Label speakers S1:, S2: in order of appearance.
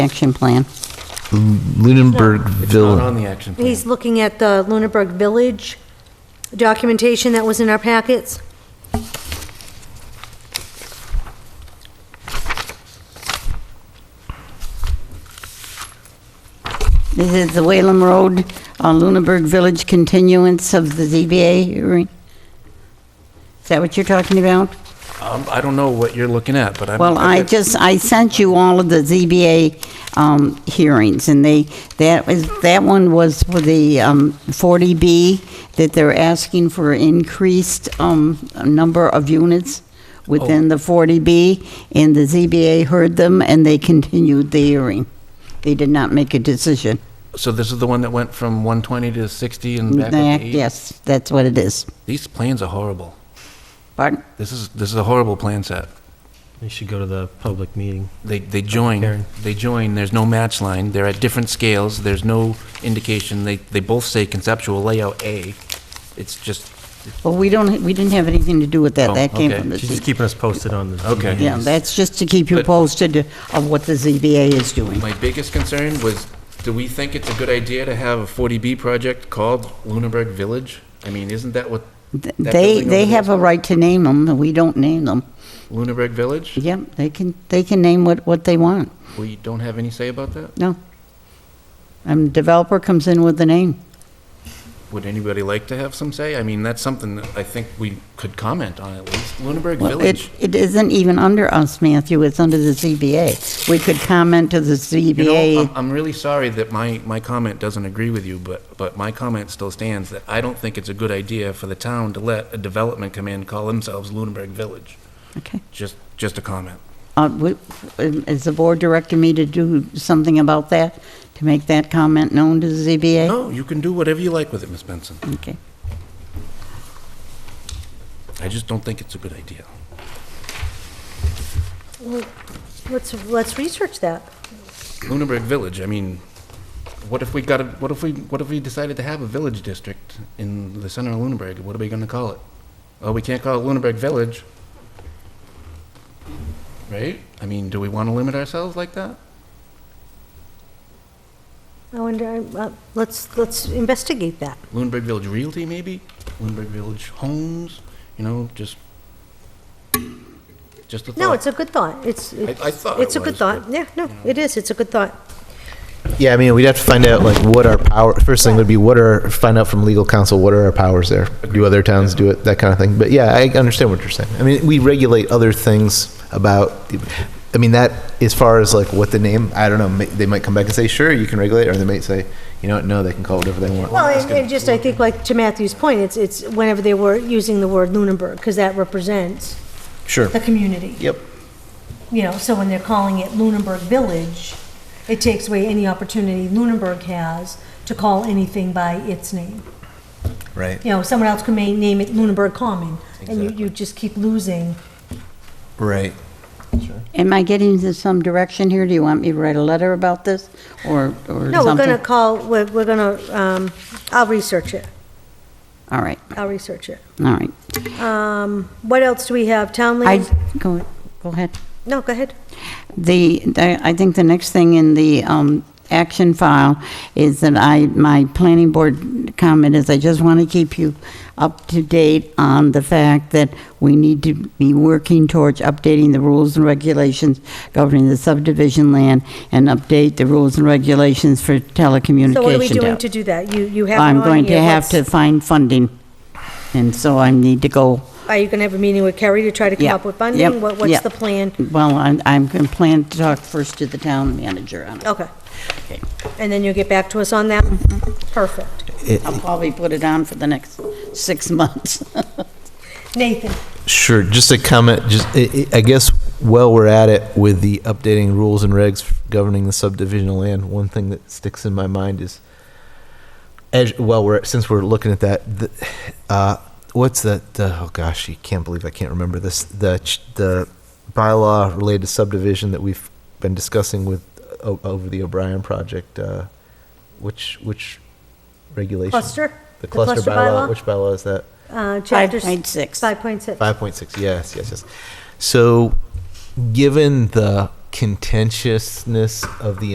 S1: action plan.
S2: It's not
S3: Lunenburgville,
S2: on the action plan.
S4: He's looking at the Lunenburg Village documentation that was in our packets.
S1: This is the Whalen Road, uh, Lunenburg Village continuance of the ZBA hearing. Is that what you're talking about?
S2: Um, I don't know what you're looking at, but I'm.
S1: Well, I just, I sent you all of the ZBA um, hearings, and they, that was, that one was for the um, 40B, that they're asking for increased um, number of units within the 40B, and the ZBA heard them, and they continued the hearing. They did not make a decision.
S2: So this is the one that went from 120 to 60 and back up
S1: Yeah,
S2: to 80?
S1: Yes, that's what it is.
S2: These plans are horrible.
S1: Pardon?
S2: This is, this is a horrible plan set.
S5: You should go to the public meeting.
S2: They, they join,
S5: Karen.
S2: they join, there's no match line, they're at different scales, there's no indication, they, they both say conceptual layout A. It's just,
S1: Well, we don't, we didn't have anything to do with that.
S2: Oh,
S1: That came
S2: okay.
S1: from the
S5: She's just
S1: ZBA.
S5: keeping us posted on the.
S2: Okay.
S1: Yeah, that's just to keep you
S2: But-
S1: posted of what the ZBA is doing.
S2: my biggest concern was, do we think it's a good idea to have a 40B project called Lunenburg Village? I mean, isn't that what,
S1: Th- They,
S2: That building over
S1: they
S2: there
S1: have
S2: is-
S1: a right to name them, and we don't name them.
S2: Lunenburg Village?
S1: Yep, they can, they can name what, what they want.
S2: We don't have any say about that?
S1: No. And developer comes in with the name.
S2: Would anybody like to have some say? I mean, that's something that I think we could comment on at least. Lunenburg
S1: Well, it,
S2: Village.
S1: it isn't even under us, Matthew, it's under the ZBA. We could comment to the
S2: You know, um, I'm,
S1: ZBA.
S2: I'm really sorry that my, my comment doesn't agree with you, but, but my comment still stands that I don't think it's a good idea for the town to let a development come in, call themselves Lunenburg Village.
S1: Okay.
S2: Just, just a comment.
S1: Uh, we- Is the board directing me to do something about that, to make that comment known to the ZBA?
S2: No, you can do whatever you like with it, Miss Benson.
S1: Okay.
S2: I just don't think it's a good idea.
S4: Well, Let's, let's research that.
S2: Lunenburg Village, I mean, what if we got a, what if we, what if we decided to have a village district in the center of Lunenburg? What are we gonna call it? Oh, we can't call it Lunenburg Village. Right? I mean, do we wanna limit ourselves like that?
S4: I wonder, uh, let's, let's investigate that.
S2: Lunenburg Village Realty, maybe? Lunenburg Village Homes, you know, just, just a thought.
S4: No, it's a good thought. It's,
S2: I thought
S4: it's a
S2: it
S4: good
S2: was,
S4: thought.
S2: but,
S4: Yeah, no, it is. It's a good thought.
S3: yeah, I mean, we'd have to find out like what our power, first thing would be what are, find out from legal counsel, what are our powers there? Do other towns do it, that kind of thing? But yeah, I understand what you're saying. I mean, we regulate other things about, I mean, that, as far as like what the name, I don't know, ma- they might come back and say, sure, you can regulate, or they might say, you know what, no, they can call it whatever they want.
S4: Well, and, and just, I think like to Matthew's point, it's, it's whenever they were using the word Lunenburg, because that represents
S3: Sure.
S4: the community.
S3: Yep.
S4: You know, so when they're calling it Lunenburg Village, it takes away any opportunity Lunenburg has to call anything by its name.
S3: Right.
S4: You know, someone else could may name it Lunenburg Common, and you, you just keep losing.
S3: Right.
S1: Am I getting to some direction here? Do you want me to write a letter about this, or, or something?
S4: No, we're gonna call, we're, we're gonna, um, I'll research it.
S1: All right,
S4: I'll research it.
S1: all right.
S4: Um, what else do we have? Town
S1: I,
S4: lands?
S1: go, go ahead.
S4: No, go ahead.
S1: The, the- I think the next thing in the um, action file is that I, my planning board comment is I just want to keep you up to date on the fact that we need to be working towards updating the rules and regulations governing the subdivision land and update the rules and regulations for telecommunication.
S4: So what are we doing
S1: tower.
S4: to do that? You, you have it on
S1: I'm
S4: here.
S1: going to have to
S4: What's-
S1: find funding, and so I need to go,
S4: Are you gonna have a meeting with Kerry to try to come
S1: Yeah,
S4: up with
S1: yep,
S4: funding? What,
S1: yeah.
S4: what's the plan?
S1: well, I'm, I'm going to plan to talk first to the town manager on it.
S4: Okay. And then you'll get back to us on that?
S1: Mm-hmm.
S4: Perfect.
S1: I'll probably put it on for the next six months.
S4: Nathan?
S3: Sure, just a comment, just, I- I I guess while we're at it with the updating rules and regs governing the subdivision land, one thing that sticks in my mind is, as, well, we're, since we're looking at that, the, uh, what's that, the, oh gosh, you can't believe I can't remember this, the, ch- the bylaw related subdivision that we've been discussing with, uh, o- over the O'Brien project, uh, which, which regulation?
S4: Cluster?
S3: The cluster bylaw, which bylaw is that?
S4: Uh,
S1: Five
S4: chapters,
S1: point six.
S4: 5.6.
S3: Five point six. Yes, yes, yes. So, given the contentiousness of the